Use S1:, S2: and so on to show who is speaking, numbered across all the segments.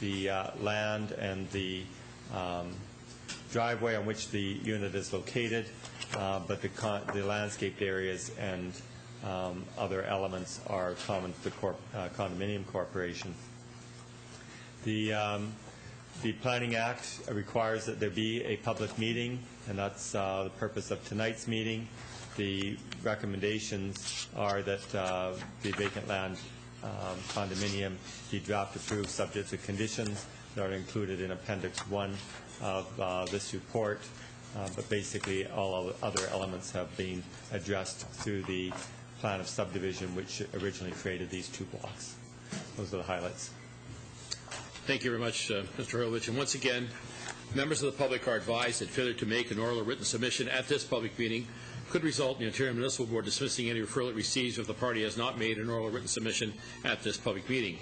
S1: the uh, land and the um, driveway on which the unit is located, uh, but the con- the landscaped areas and um, other elements are common to the corp- uh, condominium corporation. The, um, the Planning Act requires that there be a public meeting, and that's uh, the purpose of tonight's meeting. The recommendations are that uh, the vacant land um, condominium be draft approved, subject to conditions that are included in Appendix 1 of uh, this report, Uh, but basically, all of- other elements have been addressed through the plan of subdivision, which originally created these two blocks. Those are the highlights.
S2: Thank you very much, uh, Mr. Hurlovich. And once again, members of the public are advised that failure to make an oral or written submission at this public meeting could result in the Ontario Municipal Board dismissing any referral it receives if the party has not made an oral or written submission at this public meeting.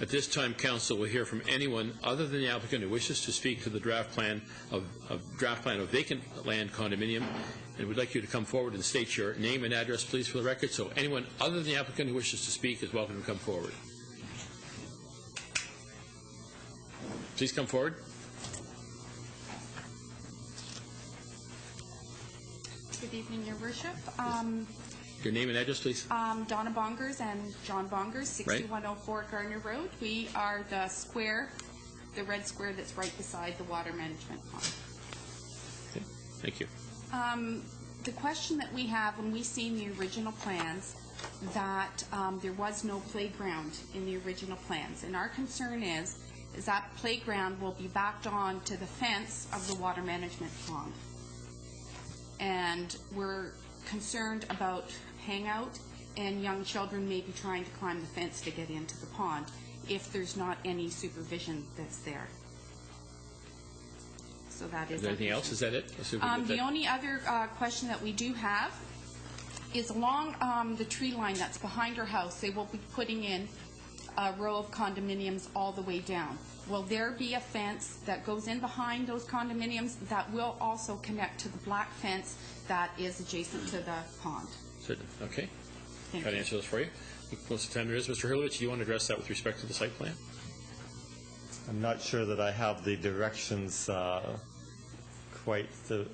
S2: At this time, council will hear from anyone other than the applicant who wishes to speak to the draft plan of, of draft plan of vacant land condominium. And we'd like you to come forward and state your name and address, please, for the record. So anyone other than the applicant who wishes to speak is welcome to come forward. Please come forward.
S3: Good evening, Your Worship. Um,
S2: Your name and address, please.
S3: um, Donna Bongers and John Bongers,
S2: Right.
S3: 6104 Gardner Road. We are the square, the red square that's right beside the water management pond.
S2: Okay, Thank you.
S3: Um, The question that we have, when we seen the original plans, that um, there was no playground in the original plans. And our concern is, is that playground will be backed on to the fence of the water management pond. And we're concerned about hangout and young children maybe trying to climb the fence to get into the pond if there's not any supervision that's there. So that is.
S2: Is there
S3: our
S2: anything else?
S3: concern.
S2: Is that it? Let's see if we
S3: Um,
S2: get
S3: the
S2: that-
S3: only other uh, question that we do have is along um, the tree line that's behind her house, they will be putting in a row of condominiums all the way down. Will there be a fence that goes in behind those condominiums that will also connect to the black fence that is adjacent to the pond?
S2: Certain- Okay.
S3: Thank
S2: Try to
S3: you.
S2: answer those for you. Most of the time there is. Mr. Hurlovich, do you want to address that with respect to the site plan?
S1: I'm not sure that I have the directions uh, quite the,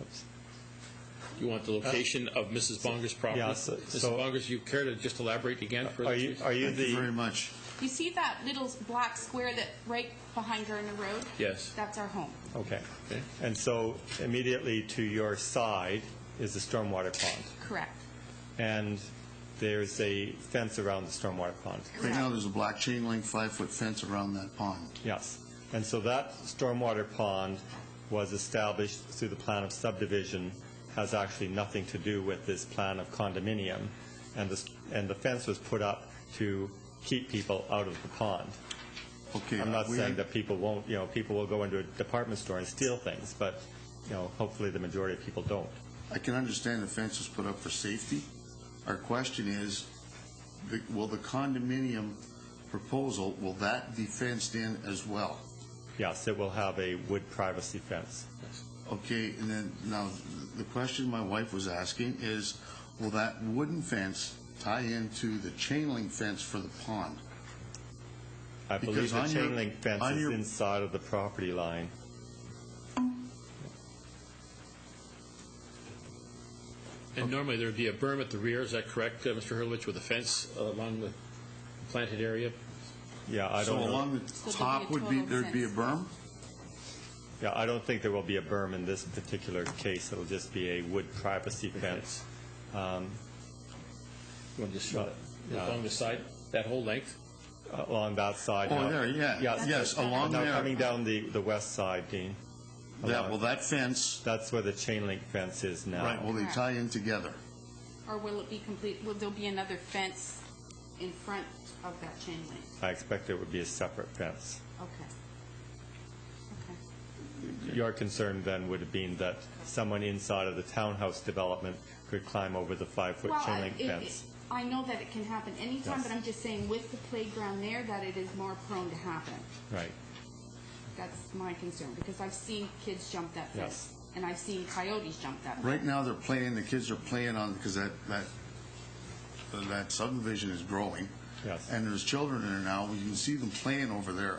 S1: oops.
S2: You want the location of Mrs. Bonger's property?
S1: yeah, Uh, so-
S2: Mrs.
S1: so-
S2: Bongers, you care to just elaborate again for
S1: are you,
S2: us?
S1: are you
S4: Thank you very
S1: the,
S4: much.
S3: You see that little black square that right behind her in the road?
S2: Yes.
S3: That's our home.
S1: okay.
S2: Okay.
S1: And so immediately to your side is the stormwater pond,
S3: Correct.
S1: and there's a fence around the stormwater pond.
S4: Right now, there's a black chain link five-foot fence around that pond.
S1: Yes. And so that stormwater pond was established through the plan of subdivision, has actually nothing to do with this plan of condominium, and the, and the fence was put up to keep people out of the pond.
S4: Okay. uh,
S1: I'm not
S4: we-
S1: saying that people won't, you know, people will go into a department store and steal things, but, you know, hopefully the majority of people don't.
S4: I can understand the fence was put up for safety. Our question is, the- will the condominium proposal, will that be fenced in as well?
S1: Yes, it will have a wood privacy fence.
S4: Okay, and then, now, the question my wife was asking is, will that wooden fence tie into the chain link fence for the pond?
S1: I believe
S4: Because
S1: the
S4: on your-
S1: chain link fence
S4: on
S1: is
S4: your-
S1: inside of the property line.
S2: And normally there'd be a berm at the rear, is that correct, uh, Mr. Hurlovich, with a fence uh, along the planted area?
S1: Yeah, I don't
S4: So
S1: know.
S4: along
S3: be
S4: the
S3: a
S4: top would be,
S3: total
S4: there'd be a
S3: fence.
S4: berm?
S1: Yeah, I don't think there will be a berm in this particular case. It'll just be a wood privacy fence. Um,
S2: You want to just show it
S1: Yeah.
S2: along the side, that whole length?
S1: Along that side.
S4: Oh,
S1: now-
S4: there, yeah, yes, along
S1: Now
S4: there.
S1: coming down the, the west side, Dean.
S4: Yeah, well, that fence
S1: That's where the chain link fence is now.
S4: Right, will they tie in together?
S3: Or will it be complete, will there be another fence in front of that chain link?
S1: I expect it would be a separate fence.
S3: Okay. Okay.
S1: Your concern then would have been that someone inside of the townhouse development could climb over the five-foot
S3: Well, I-
S1: chain link
S3: it-
S1: fence.
S3: it- I know that it can happen anytime,
S1: Yes.
S3: but I'm just saying with the playground there, that it is more prone to happen.
S1: Right,
S3: That's my concern, because I've seen kids jump that
S1: Yes.
S3: fence. And I've seen coyotes jump that. fence.
S4: Right now, they're playing, the kids are playing on, because that, that, that subdivision is growing,
S1: Yes.
S4: And there's children in there now, you can see them playing over there